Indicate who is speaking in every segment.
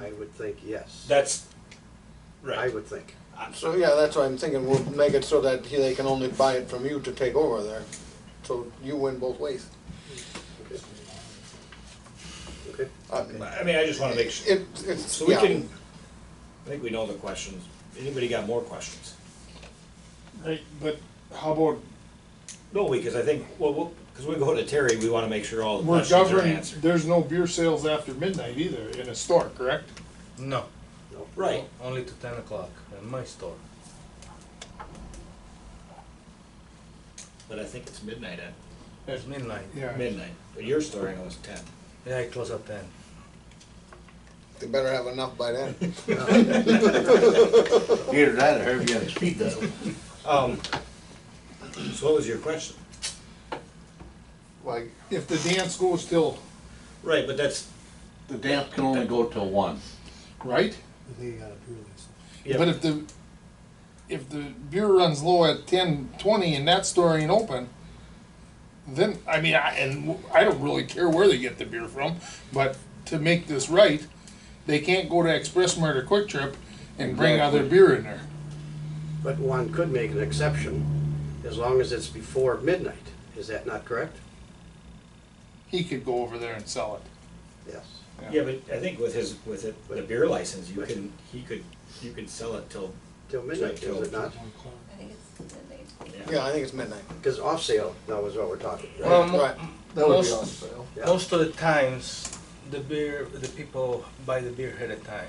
Speaker 1: I would think yes.
Speaker 2: That's,
Speaker 1: I
Speaker 2: right,
Speaker 1: would think.
Speaker 3: So, yeah, that's why I'm thinking we'll make it so that he, they can only buy it from you to take over there. So you win both ways.
Speaker 1: Okay. Okay.
Speaker 3: Uh,
Speaker 2: I mean, I just wanna make sure,
Speaker 3: It, it's,
Speaker 2: so we
Speaker 3: yeah.
Speaker 2: can, I think we know the questions, anybody got more questions?
Speaker 4: Hey, But how about,
Speaker 2: No, because I think, well, well, cause we go to Terry, we wanna make sure all the
Speaker 4: we're
Speaker 2: questions are
Speaker 4: governed,
Speaker 2: answered.
Speaker 4: there's no beer sales after midnight either in a store, correct?
Speaker 5: No,
Speaker 2: Right,
Speaker 5: only to 10 o'clock in my store.
Speaker 2: but I think it's midnight at,
Speaker 5: It's midnight.
Speaker 4: Yeah.
Speaker 2: midnight, but your story I know is ten.
Speaker 5: Yeah, I close at 10.
Speaker 3: They better have enough by then.
Speaker 6: Either that or have you on speed dial.
Speaker 2: Um, so what was your question?
Speaker 3: Like,
Speaker 4: If the dance goes till,
Speaker 2: Right, but that's,
Speaker 6: The dance can only go till one.
Speaker 4: right?
Speaker 2: yeah,
Speaker 4: But if the, if the beer runs low at ten, twenty and that store ain't open, then, I mean, I, and I don't really care where they get the beer from, but to make this right, they can't go to Express Mart or Quick Trip and bring other beer in there.
Speaker 1: But one could make an exception as long as it's before midnight. Is that not correct?
Speaker 4: He could go over there and sell it.
Speaker 1: Yes.
Speaker 2: yeah, but I think with his, with it, with a beer license, you can, he could, you could sell it till,
Speaker 1: Till midnight, is it not?
Speaker 7: I think it's midnight.
Speaker 3: yeah, I think it's midnight.
Speaker 1: Because off sale now is what we're talking,
Speaker 8: Um,
Speaker 1: right?
Speaker 5: Well, mo-
Speaker 3: Right. That would be
Speaker 5: most,
Speaker 3: awesome.
Speaker 1: Yeah.
Speaker 5: most of the times, the beer, the people buy the beer ahead of time.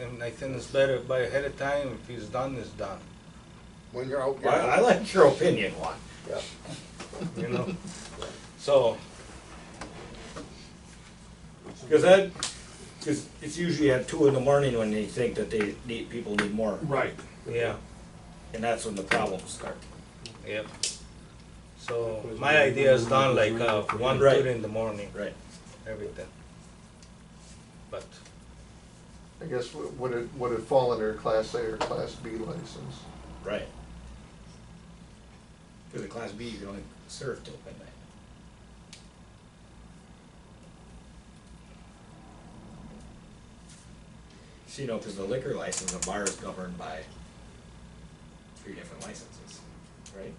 Speaker 5: And I think it's better buy ahead of time. If it's done, it's done.
Speaker 3: When you're out,
Speaker 2: I,
Speaker 3: you're
Speaker 2: I
Speaker 3: out.
Speaker 2: like your opinion, Juan.
Speaker 1: Yeah.
Speaker 5: You know. so
Speaker 2: Because that, because it's usually at two in the morning when they think that they need, people need more,
Speaker 4: Right.
Speaker 5: yeah,
Speaker 2: and that's when the problems start.
Speaker 5: yep. So my idea is done like uh, one,
Speaker 2: Right.
Speaker 5: two in the morning,
Speaker 2: Right.
Speaker 5: everything. But
Speaker 8: I guess w- would it, would it fall under a Class A or Class B license?
Speaker 2: Right. Because a class B, you can only serve till midnight. So, you know, because the liquor license, a bar is governed by three different licenses, right?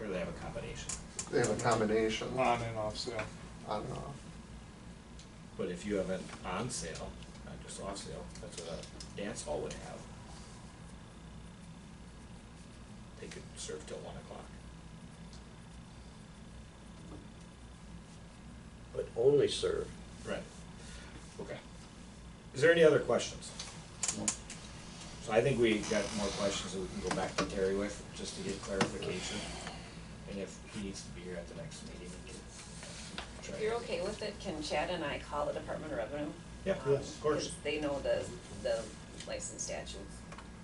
Speaker 2: Or they have a combination.
Speaker 8: They have a combination on
Speaker 4: On and off sale.
Speaker 8: and off.
Speaker 2: But if you have an on sale, not just off sale, that's what a dance hall would have. They could serve till one o'clock.
Speaker 1: But only serve.
Speaker 2: Right. Okay. Is there any other questions? So I think we got more questions that we can go back to Terry with, just to get clarification. And if he needs to be here at the next meeting, we can try.
Speaker 7: If you're okay with it, can Chad and I call the Department of Revenue?
Speaker 2: Yeah,
Speaker 7: Um,
Speaker 2: of course.
Speaker 7: 'cause they know the, the license statutes,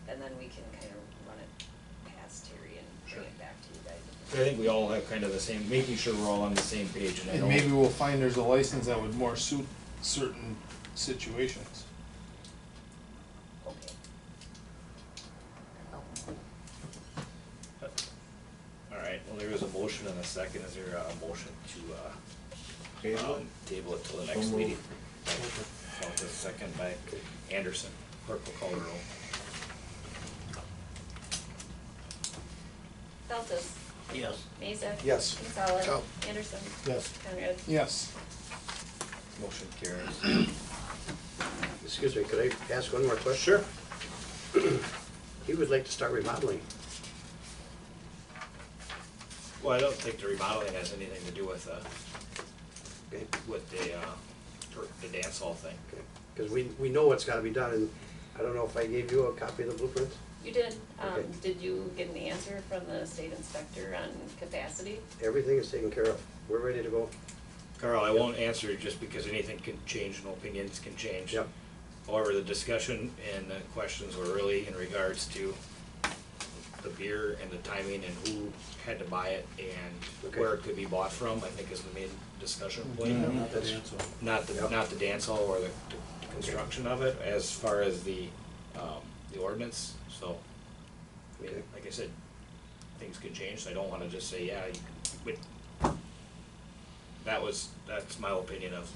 Speaker 7: and then we can kind of run it past Terry and bring it back to you
Speaker 2: I
Speaker 7: guys.
Speaker 2: think we all have kind of the same, making sure we're all on the same page and I
Speaker 4: And
Speaker 2: don't.
Speaker 4: maybe we'll find there's a license that would more suit certain situations.
Speaker 7: Okay.
Speaker 9: All right, well, there is a motion and a second. Is there a motion to, uh, um, table it till the next meeting? Felt a second by Anderson. Clerk will call the roll.
Speaker 7: Feltes,
Speaker 6: Yes.
Speaker 7: Mazak.
Speaker 4: Yes.
Speaker 7: Kinsella.
Speaker 3: No.
Speaker 7: Anderson.
Speaker 4: Yes.
Speaker 7: Conrad.
Speaker 4: Yes.
Speaker 9: Motion carries.
Speaker 1: Excuse me, could I ask one more question? Sure. He would like to start remodeling.
Speaker 9: Well, I don't think the remodeling has anything to do with, uh,
Speaker 1: Okay.
Speaker 9: with the, uh, per- the dance hall thing.
Speaker 1: Because we, we know what's gotta be done, and I don't know if I gave you a copy of the blueprint?
Speaker 7: You did, um,
Speaker 1: Okay.
Speaker 7: did you get an answer from the state inspector on capacity?
Speaker 1: Everything is taken care of. We're ready to go.
Speaker 9: Carl, I won't answer just because anything can change and opinions can change.
Speaker 1: Yep.
Speaker 9: However, the discussion and the questions were really in regards to the beer and the timing and who had to buy it and
Speaker 1: Okay.
Speaker 9: where it could be bought from, I think is the main discussion point.
Speaker 1: That's-
Speaker 9: Not the,
Speaker 1: Yep.
Speaker 9: not the dance hall or the the construction of it, as far as the, um, the ordinance, so. I mean,
Speaker 1: Okay.
Speaker 9: like I said, things could change, so I don't wanna just say, yeah, you can, but that was, that's my opinion of